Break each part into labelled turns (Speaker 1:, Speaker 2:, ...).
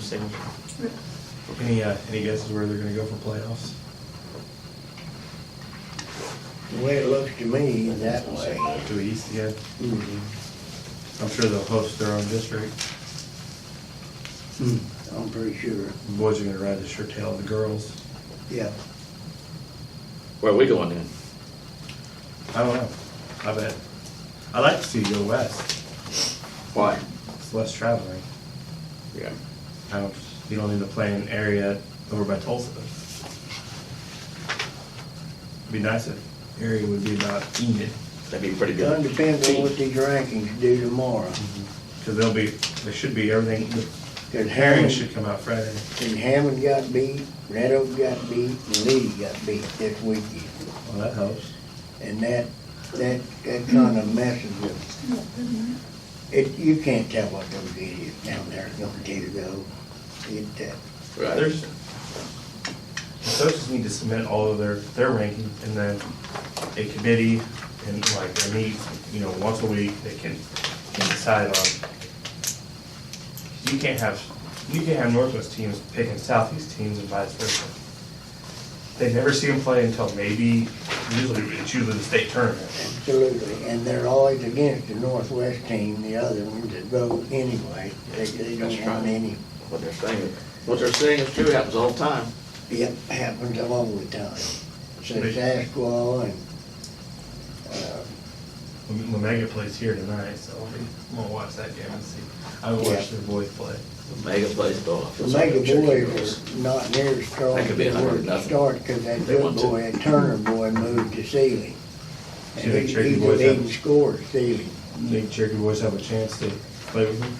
Speaker 1: signature. Any, uh, any guesses where they're gonna go for playoffs?
Speaker 2: The way it looks to me, that way.
Speaker 1: To the east, yeah.
Speaker 2: Mhm.
Speaker 1: I'm sure they'll host their own district.
Speaker 2: Mm, I'm pretty sure,
Speaker 1: The Boys are gonna ride the shirt tail of the girls.
Speaker 2: yeah.
Speaker 3: Where are we going then?
Speaker 1: I don't know. I bet. I'd like to see you go west.
Speaker 3: Why?
Speaker 1: It's less traveling.
Speaker 3: Yeah.
Speaker 1: I don't, you don't need to play in an area over by Tulsa. Be nice if area would be about Enid,
Speaker 3: That'd be a pretty
Speaker 2: It
Speaker 3: good.
Speaker 2: depends on
Speaker 3: team.
Speaker 2: what these rankings do tomorrow.
Speaker 1: because they'll be, there should be everything,
Speaker 2: Cause
Speaker 1: Herring
Speaker 2: Hammond,
Speaker 1: should come out Friday.
Speaker 2: and Hammond got beat, Red Oak got beat, and Lee got beat this weekend.
Speaker 1: Well, that helps.
Speaker 2: And that, that, that kinda messes with. It, you can't tell what those idiots down there are gonna do though. It, uh,
Speaker 3: Right.
Speaker 1: There's, the coaches need to submit all of their, their ranking, and then a committee, and like, they meet, you know, once a week, they can, can decide on. You can't have, you can't have Northwest teams picking Southeast teams and vice versa. They never see them play until maybe, usually, it's usually the state tournament.
Speaker 2: Absolutely, and they're always against the Northwest team, the other ones that go anyway, they, they don't
Speaker 3: That's right.
Speaker 2: want any.
Speaker 3: What they're saying, what they're saying is true, happens all the time.
Speaker 2: Yep, happens all the time. So
Speaker 1: They-
Speaker 2: it's Asquith and, uh,
Speaker 1: Lamega plays here tonight, so I'll be, I'm gonna watch that game and see. I watched their boys play.
Speaker 3: Omega plays golf.
Speaker 2: the Mega Boys are not near as strong
Speaker 3: That
Speaker 2: as
Speaker 3: could be
Speaker 2: they
Speaker 3: a hundred
Speaker 2: were to
Speaker 3: nothing.
Speaker 2: start, cause that
Speaker 3: They
Speaker 2: good
Speaker 3: want to.
Speaker 2: boy, that Turner boy moved to Sealy.
Speaker 1: See,
Speaker 2: And
Speaker 1: they
Speaker 2: he,
Speaker 1: trade the
Speaker 2: he's a
Speaker 1: boys
Speaker 2: leading
Speaker 1: up.
Speaker 2: scorer, Sealy.
Speaker 1: Think Cherokee boys have a chance to play with them?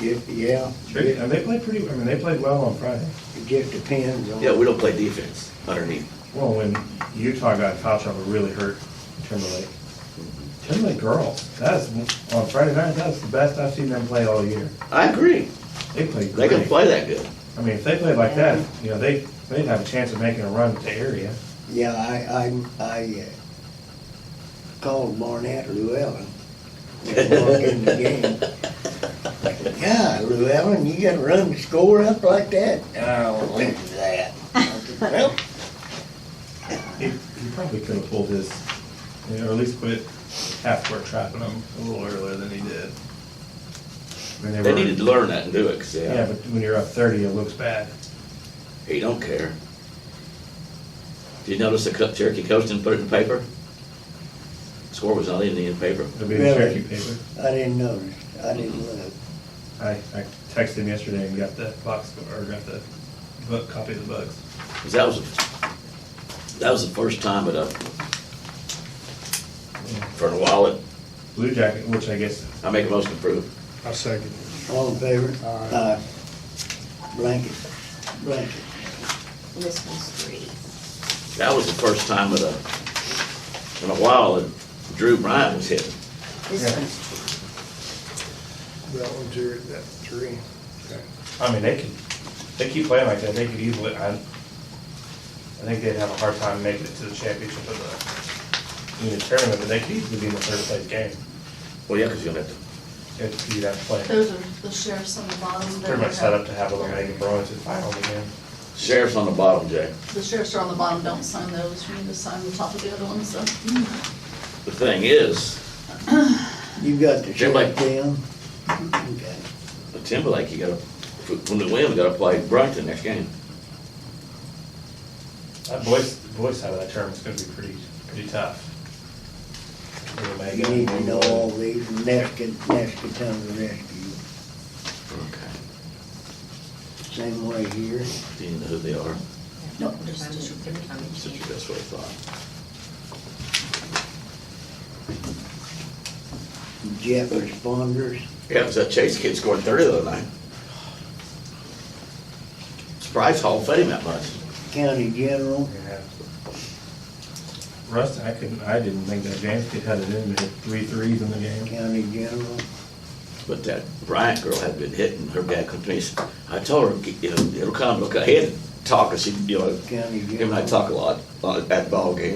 Speaker 2: Yep, yeah,
Speaker 1: Sure,
Speaker 2: it,
Speaker 1: and they played pretty, I mean, they played well on Friday.
Speaker 2: it just depends on.
Speaker 3: Yeah, we don't play defense underneath.
Speaker 1: Well, when Utah got foul trouble, really hurt Timberlake. Timberlake girls, that's, on Friday night, that's the best I've seen them play all year.
Speaker 3: I agree.
Speaker 1: They played
Speaker 3: They can
Speaker 1: great.
Speaker 3: play that good.
Speaker 1: I mean, if they played like that, you know, they, they'd have a chance of making a run to area.
Speaker 2: Yeah, I, I, I uh, called Barnett Llewellyn. when I walked in the game. I said, God, Llewellyn, you gotta run the score up like that? I don't listen to that. I said, Well,
Speaker 1: He, he probably could have pulled his, you know, or at least quit half-court trapping them a little earlier than he did. I mean,
Speaker 3: They
Speaker 1: were-
Speaker 3: needed to learn that and do it, 'cause,
Speaker 1: Yeah,
Speaker 3: yeah,
Speaker 1: but when you're up thirty, it looks bad.
Speaker 3: he don't care. Did you notice the co- Cherokee coach didn't put it in paper? Score was not even in the paper.
Speaker 1: It'll be in the
Speaker 2: Really?
Speaker 1: Cherokee paper.
Speaker 2: I didn't notice, I didn't look.
Speaker 1: I, I texted him yesterday and got the box score, or got the book, copy of the books.
Speaker 3: 'Cause that was, that was the first time it, uh, for a while, it-
Speaker 1: Blue Jacket, which I guess,
Speaker 3: I make a motion to approve.
Speaker 4: I second.
Speaker 2: All in favor?
Speaker 4: Aye.
Speaker 2: Uh, Blanket, blanket.
Speaker 5: This was three.
Speaker 3: That was the first time in a, in a while that Drew Bryant was hit.
Speaker 5: This
Speaker 1: Yeah.
Speaker 5: one's
Speaker 4: That one's your, that three. Okay.
Speaker 1: I mean, they could, they keep playing like that, they could easily, I, I think they'd have a hard time making it to the championship of the, in the tournament, but they could easily be in the third place game.
Speaker 3: Well, yeah, because you're gonna have to,
Speaker 1: If you'd have to play,
Speaker 6: Those are the sheriffs on the bottom.
Speaker 1: pretty much set up to have a Lorraine Bruins in final again.
Speaker 3: sheriff's on the bottom, Jay.
Speaker 6: The sheriffs are on the bottom, don't sign those, you need to sign the top of the other ones, so.
Speaker 3: The thing is,
Speaker 2: You got the
Speaker 3: Jim,
Speaker 2: sheriff
Speaker 3: like-
Speaker 2: down? Okay.
Speaker 3: the Timberlake, you gotta, when they win, we gotta play Brighton next game.
Speaker 1: That boys, boys side of that tournament's gonna be pretty, pretty tough. Little
Speaker 2: You
Speaker 1: Megan,
Speaker 2: need to know all these, and Ness can, Ness can come to rescue.
Speaker 3: Okay.
Speaker 2: Same way here.
Speaker 3: Do you know who they are?
Speaker 6: No, just- just-
Speaker 3: Such a best way of thought.
Speaker 2: jet responders.
Speaker 3: Yeah, because that Chase kid scored thirty the other night. Surprised Hall fed him that much.
Speaker 2: County General,
Speaker 1: Yeah. Russ, I couldn't, I didn't think that James kid had it in, but hit three threes in the game.
Speaker 2: County General,
Speaker 3: But that Bryant girl had been hitting, her dad comes to me, and said, I told her, you know, it'll come, look, I had to talk, 'cause she, you know,
Speaker 2: County General.
Speaker 3: him and I talk a lot uh, at ball games.